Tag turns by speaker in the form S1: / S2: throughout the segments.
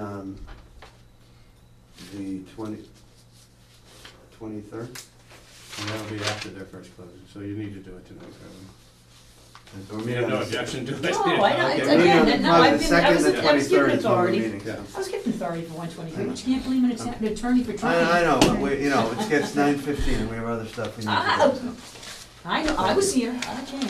S1: Um, twenty, twenty-third?
S2: And that'll be after their first closing, so you need to do it tonight, probably.
S1: Or
S2: We have no objection to it.
S3: No, Oh, I don't- it's
S2: Okay.
S3: okay. again, no, I've been- I was-
S1: The second,
S3: I
S1: the
S3: was
S1: twenty-third
S3: given
S1: is when we're
S3: authority.
S1: meeting.
S2: Yeah.
S3: I was given authority for one twenty-three, which can't believe an att- an attorney for trying.
S1: I, I know, but we, you know, it gets nine fifteen and we have other stuff we need
S3: Oh.
S1: to do. so.
S3: I know, I was here, I came,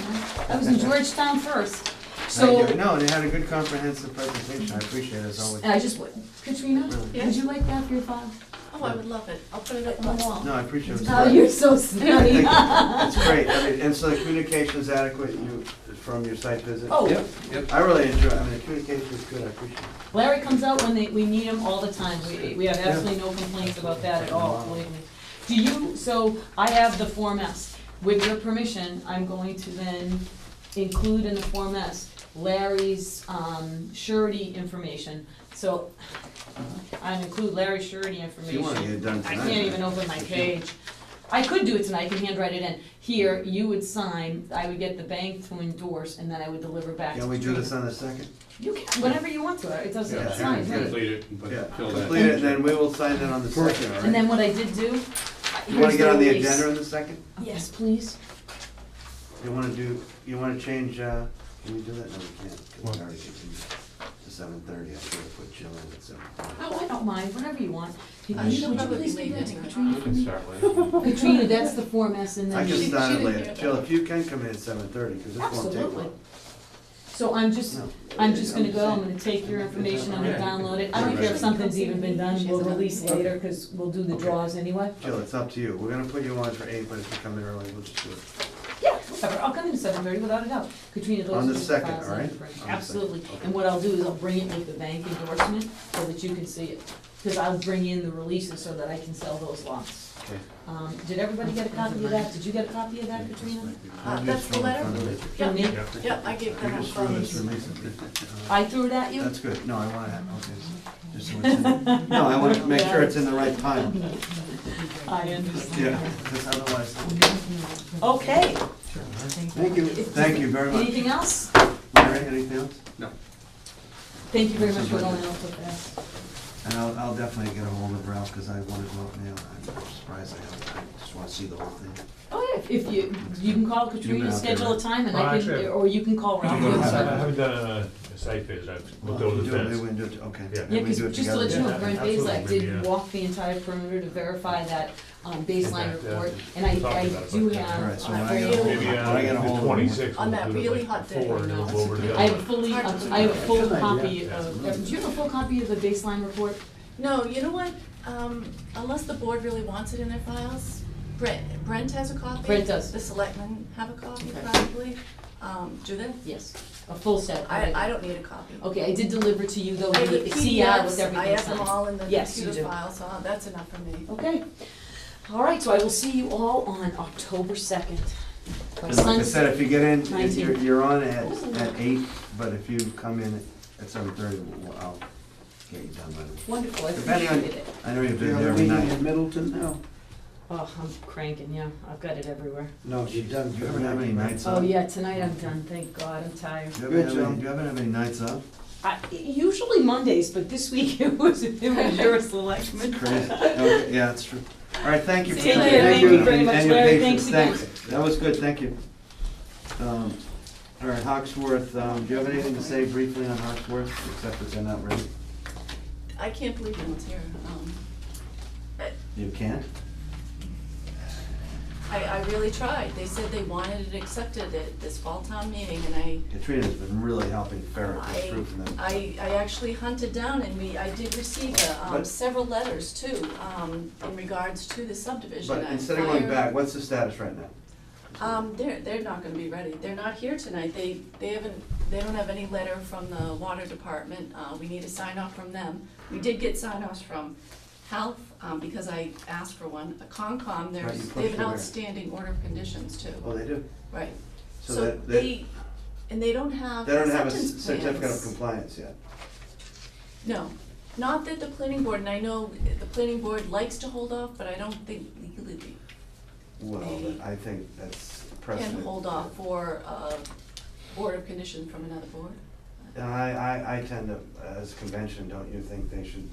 S3: I was in Georgetown first, so, Uh,
S1: Thank you. No, they had a good comprehensive presentation, I appreciate it as always.
S3: I just, wa- Katrina,
S1: Really?
S3: would you like that for your file?
S4: Oh, I would love it. I'll put it up
S3: On
S4: on
S3: the
S4: the wall.
S3: wall.
S1: No, I appreciate it.
S3: Oh, you're so
S1: I
S3: snotty.
S1: think It's great, I mean, and so the communication's adequate, you, from your site visit?
S3: Oh.
S2: Yep, yep.
S1: I really enjoy, I mean, the communication's good, I appreciate it.
S3: Larry comes out when they, we need him all the time, we, we have absolutely no complaints about that at all, believe me. Do you, so I have the Form S, with your permission, I'm going to then include in the Form S Larry's, um, surety information, so I include Larry's surety
S1: So
S3: information.
S1: you wanna get it done
S3: I
S1: tonight?
S3: can't even open my page. I could do it tonight, I can handwrite it in. Here, you would sign, I would get the bank to endorse, and then I would deliver back to
S1: Can we do
S3: Katrina.
S1: this on the second?
S3: You can, whenever you want to, it doesn't,
S1: Yeah,
S3: it's fine,
S1: yeah.
S3: right?
S2: Complete it and put-
S1: Yeah,
S2: fill that.
S1: complete it, and then we will sign that on the second, all
S3: And
S1: right?
S3: then what I did do.
S1: You wanna get on the
S3: here's
S1: agenda
S3: release.
S1: on the second?
S3: Yes, please.
S1: You wanna do, you wanna change, uh, can we do that? No, we can't, because
S2: What?
S1: it's already continued to seven thirty, I should have put Jill in at seven.
S3: Oh, I don't mind, whatever you want.
S4: Uh,
S3: Katrina,
S4: she'll
S3: would you
S4: probably
S3: please do
S4: leave
S3: that,
S4: it.
S2: You can
S3: Katrina?
S2: start later.
S3: Katrina, that's the Form S and
S1: I
S3: then.
S1: can
S4: she-
S1: start it
S4: she didn't
S1: later.
S4: hear
S1: Jill, if you can come in at seven thirty, because this won't take
S3: Absolutely.
S1: long.
S3: So I'm just,
S1: No,
S3: I'm just gonna go, I'm
S1: saying.
S3: gonna take your information, I'm gonna
S2: Yeah.
S3: download it. I don't care if something's even been done, we'll release
S4: Okay.
S3: later, cause we'll do the
S1: Okay.
S3: draws anyway.
S1: Jill, it's up to you. We're gonna put you on for eight, but if you come in early, we'll just do it.
S3: Yeah, whatever, I'll come in at seven thirty without a doubt. Katrina those
S1: On the
S3: are
S1: second,
S3: files
S1: all right?
S3: I've printed.
S1: On the second,
S3: Absolutely,
S1: okay.
S3: and what I'll do is I'll bring it with the bank endorsement so that you can see it. Cause I'll bring in the releases so that I can sell those lots.
S1: Okay.
S3: Um, did everybody get a copy of that? Did you get a copy of that, Katrina?
S4: Uh, that's the letter?
S3: From me?
S4: Yeah, I gave
S1: I
S4: that
S1: just threw this
S4: up.
S1: release at
S3: I threw it at
S1: you.
S3: you?
S1: That's good. No, I want to, okay. so- just so it's in- No, I want to make sure it's in the right time.
S3: I understand.
S1: Yeah, because otherwise,
S3: Okay,
S1: thank you, thank you very much.
S3: anything else?
S1: Mary, anything else?
S2: No.
S3: Thank you very much for going out with us.
S1: And I'll, I'll definitely get a hold of Ralph, because I want to go up now. I'm surprised I haven't. I just want to see the whole thing.
S3: Oh, yeah, if you, you can call Katrina,
S1: out there,
S3: schedule a
S1: right?
S3: time and
S5: Well,
S3: I can,
S5: actually-
S3: or you can call
S5: I
S3: Ralph.
S5: haven't done a site visit, I've looked over the
S1: Do it,
S5: fence.
S1: Maybe we can do it, okay.
S5: Yeah.
S1: Maybe
S3: Yeah,
S1: we
S3: because
S1: do it
S3: just to let you
S1: together.
S3: know, Brent Bazelak
S5: absolutely,
S3: did
S5: yeah.
S3: walk the entire perimeter to verify that um, baseline
S5: Impact, yeah.
S3: report, and I,
S5: Talked
S3: I
S5: about it,
S3: do
S5: but-
S1: All right,
S3: have,
S1: so
S3: uh,
S1: when I
S3: for
S1: get a hold
S3: you-
S1: of
S5: Maybe
S1: when I get a
S5: on
S1: hold
S5: the
S1: of
S5: twenty-sixth.
S4: On that really hot day.
S5: Four, and then we'll go over to
S1: uh,
S5: the
S3: I have
S5: other
S3: a
S5: one.
S3: fully,
S4: Hard to
S3: I have a full
S1: Good idea.
S3: copy
S5: Yeah.
S3: of, do you have a full copy of the baseline report?
S4: No, you know what? Um, unless the board really wants it in their files, Brent, Brent has a copy.
S3: Brent does.
S4: The selectmen have a copy
S3: Okay.
S4: probably. Um, do they?
S3: Yes, a full set.
S4: I,
S3: okay.
S4: I don't need a copy.
S3: Okay, I did deliver to you though,
S4: I have the
S3: the CI with
S4: PDFs, I
S3: everything
S4: have them
S3: signed.
S4: all in the
S3: Yes, you
S4: computer
S3: do.
S4: file, so uh, that's enough for me.
S3: Okay, all right, so I will see you all on October second.
S1: And Like I said, if you get in, if you're,
S3: 19.
S1: you're on at, at eight, but if you come in at seven thirty, I'll get you done by then.
S3: Wonderful, I
S1: Depending on-
S3: appreciate it.
S1: I know you've
S6: You
S1: been
S6: have
S1: there
S6: a
S1: every
S6: meeting in
S1: night.
S6: Middleton now?
S3: Oh, I'm cranking, yeah, I've got it everywhere.
S6: No, you've done.
S1: You haven't had any nights
S3: Oh,
S1: up?
S3: yeah, tonight I'm done, thank God, I'm tired.
S1: You haven't had
S6: Good,
S1: any-
S6: Joe.
S1: you haven't had any nights up?
S3: I- Usually Mondays, but this week it was, it was your selection.
S1: Crazy. Okay, Yeah, that's true. All right, thank you. for
S3: See you
S1: coming.
S3: later. Thank you
S1: and-
S3: very
S1: and
S3: much,
S1: your
S3: Larry.
S1: patience.
S3: Thanks
S1: Thanks. That was good, thank you. Um, All right, Hawksworth, um, do you have anything to say briefly on Hawksworth, except that they're not ready?
S4: I can't believe no one's here. Um,
S1: You can't?
S4: I, I really tried. They said they wanted it accepted at this fall town meeting, and I
S1: Katrina's been really helping ferret this
S4: I,
S1: through for them.
S4: I, I actually hunted down and we, I did receive uh, um,
S1: But-
S4: several letters too, um, in regards to the subdivision.
S1: But
S4: I
S1: instead of going
S4: fired-
S1: back, what's the status right now?
S4: Um, they're, they're not gonna be ready. They're not here tonight. They, they haven't, they don't have any letter from the water department. Uh, we need a sign off from them. We did get sign offs from health, um, because I asked for one. Concom,
S1: Right, you
S4: there's,
S1: pushed
S4: they have an
S1: it there.
S4: outstanding order of conditions too,
S1: Oh, they do?
S4: right?
S1: So
S4: So
S1: that- that-
S4: they, and they don't
S3: Uh,
S4: have
S1: They don't have a
S4: acceptance plans.
S1: c- certificate of compliance yet.
S4: No, not that the planning board, and I know the planning board likes to hold off, but I don't think legally they
S1: Well, I think that's precedent.
S4: can hold off for a board of condition from another board.
S1: And I, I, I tend to, as convention, don't you think they should